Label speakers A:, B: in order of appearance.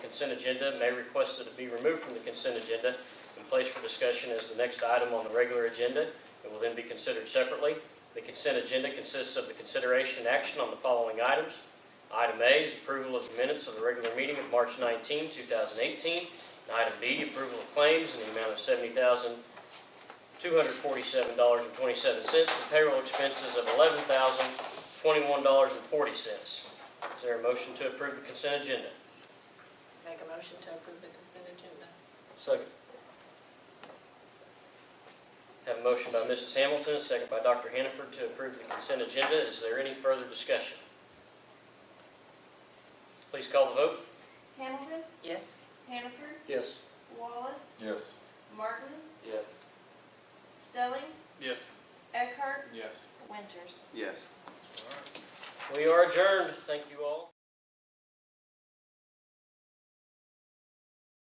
A: consent agenda and they requested to be removed from the consent agenda and placed for discussion as the next item on the regular agenda. It will then be considered separately. The consent agenda consists of the consideration and action on the following items. Item A is approval of the minutes of the regular meeting of March 19, 2018. And Item B, approval of claims in the amount of $70,247.27 and payroll expenses of $11,021.40. Is there a motion to approve the consent agenda?
B: Make a motion to approve the consent agenda.
A: Second. Have a motion by Mrs. Hamilton, a second by Dr. Hannaford to approve the consent agenda. Is there any further discussion? Please call the vote.
C: Hamilton,
B: Yes.
C: Hannaford,
D: Yes.
C: Wallace,
D: Yes.
C: Martin,
E: Yes.
C: Stelling,
E: Yes.
C: Eckhart,
E: Yes.
C: Winters.
D: Yes.
A: We are adjourned. Thank you all.